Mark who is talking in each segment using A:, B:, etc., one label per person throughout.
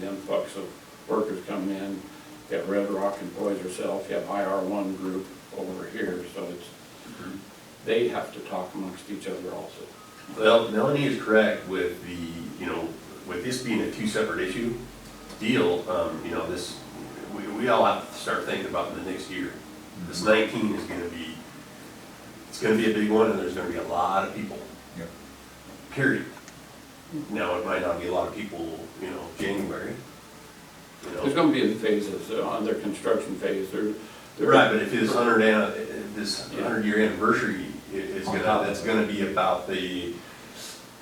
A: The influx of workers coming in, you have Red Rock employs herself, you have IR one group over here, so it's, they have to talk amongst each other also.
B: Well, Melanie is correct with the, you know, with this being a two separate issue deal, um, you know, this, we, we all have to start thinking about the next year. This nineteen is gonna be, it's gonna be a big one, and there's gonna be a lot of people.
C: Yep.
B: Period. Now, it might not be a lot of people, you know, January, you know.
A: There's gonna be in phases, uh, on their construction phase, they're. they're-
B: Right, but if his hundred, an- this
A: Yeah.
B: hundred year anniversary i- is
C: On
B: gonna,
C: top of
B: that's
C: it.
B: gonna be about the,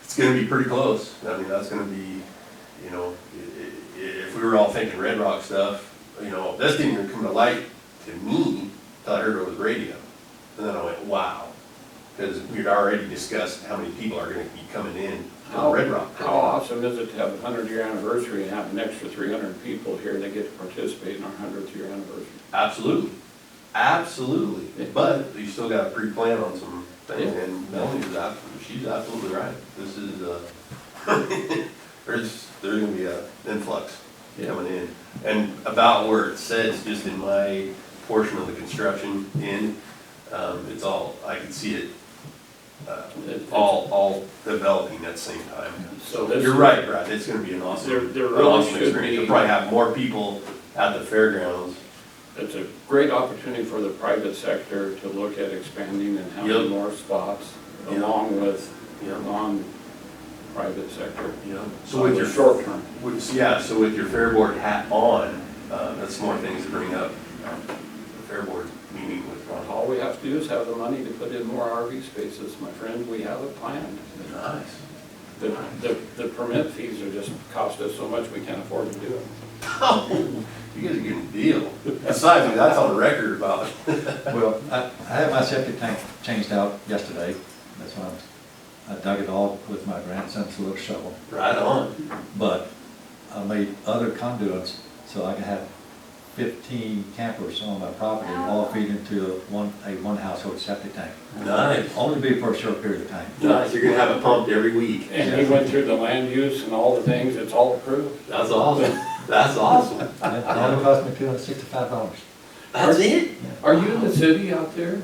B: it's gonna be pretty close. I mean, that's gonna be, you know, i- i- if we were all thinking Red Rock stuff, you know, this didn't even come to light to me till I heard it over the radio. And then I went, wow, because we'd already discussed how many people are gonna be coming in
A: How,
B: to Red Rock.
A: how awesome is it to have a hundred year anniversary and have an extra three hundred people here that get to participate in our hundredth year anniversary?
B: Absolutely, absolutely,
A: Yeah.
B: but you still gotta pre-plan on some things,
A: Yeah.
B: and Melanie's absolutely, she's absolutely right, this is, uh, there's, there's gonna be a influx
A: Yeah.
B: coming in. And about where it says, just in my portion of the construction end, um, it's all, I can see it, uh,
A: It-
B: all, all developing at the same time.
A: So this-
B: You're right, Brad, it's gonna be an awesome,
A: There- there
B: an
A: really
B: awesome
A: should
B: experience, you'll
A: be-
B: probably have more people at the fairgrounds
A: It's a great opportunity for the private sector to look at expanding and having
B: Yep.
A: more spots
B: Yep.
A: along with
B: Yep.
A: non-private sector.
B: Yeah. So with your short,
A: short term.
B: with, yeah, so with your fair board hat on, uh, that's more things to bring up. The Fair board meeting with Ron Hall.
A: All we have to do is have the money to put in more RV spaces, my friend, we have a plan.
B: Nice.
A: The, the, the permit fees are just cost us so much, we can't afford to do it.
B: Oh, you guys are getting a deal. Besides, that's on record about.
C: Well, I, I had my septic tank changed out yesterday, that's why I was- I dug it all with my grandson's little shovel.
B: Right on.
C: But I made other conduits so I could have fifteen campers on my property, all feed into a one, a one household septic tank.
B: Nice.
C: Only be for a short period of time.
B: Nice, you're gonna have it pumped every week.
A: And we went through the land use and all the things, it's all approved.
B: That's awesome. That's awesome.
C: And It only cost me two hundred sixty-five dollars.
B: That's it?
A: Are you in the city out there?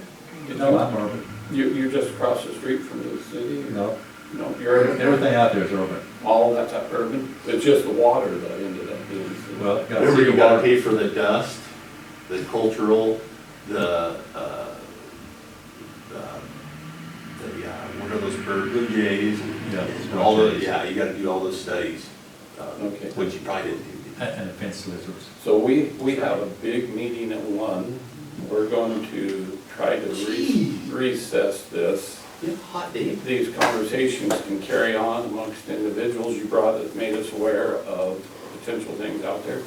A: You
C: No,
A: know,
C: I'm urban,
A: you, you're just across the street from the city?
C: no,
A: No, you're.
C: everything out there is urban.
A: All that's up urban, it's just the water that ended up being.
C: Well, you gotta
B: Remember,
C: see
B: you
C: the
B: gotta
C: water.
B: pay for the dust, the cultural, the, uh, uh, the, uh, what are those bird, blue jays and-
C: Yeah.
B: and all those, yeah, you gotta do all those studies. um,
A: Okay.
B: Which you probably didn't do.
C: And and the fence lizards.
A: So we, we have a big meeting at one, we're going to try to re-
B: Gee.
A: recess this.
B: Yeah, Hot day.
A: These conversations can carry on amongst individuals, you brought, it made us aware of potential things out there,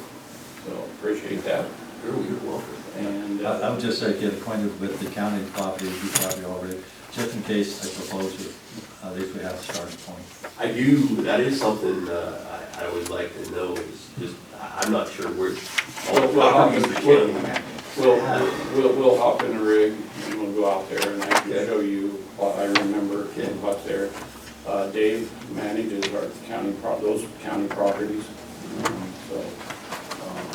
A: so appreciate that,
B: You're, you're welcome.
A: and. uh,
C: I I would just say get acquainted with the county property, you probably already, just in case they propose it, at least we have a starting point.
B: I do, that is something, uh, I, I would like to know, is just, I, I'm not sure where.
A: Well, well,
B: I'll use the
A: well,
B: county.
A: We'll, we'll, we'll hop in a rig and we'll go out there and I can show you what I remember and what's there. Uh, Dave manages our county pro, those county properties, um, so, um,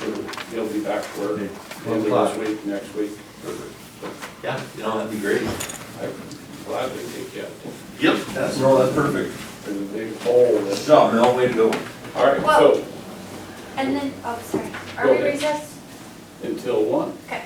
A: he'll- he'll be back to work
C: Okay.
A: end of this week, next week.
B: Yeah, you know, that'd be great.
A: I gladly take you out there.
B: Yep, that's, no, that's perfect.
A: There's a big hole
B: Good
A: that's,
B: job, Mel, way to go.
A: all right, so
D: And then, oh, sorry,
A: Go
D: are we
A: ahead.
D: recessed?
A: until one,
D: Okay.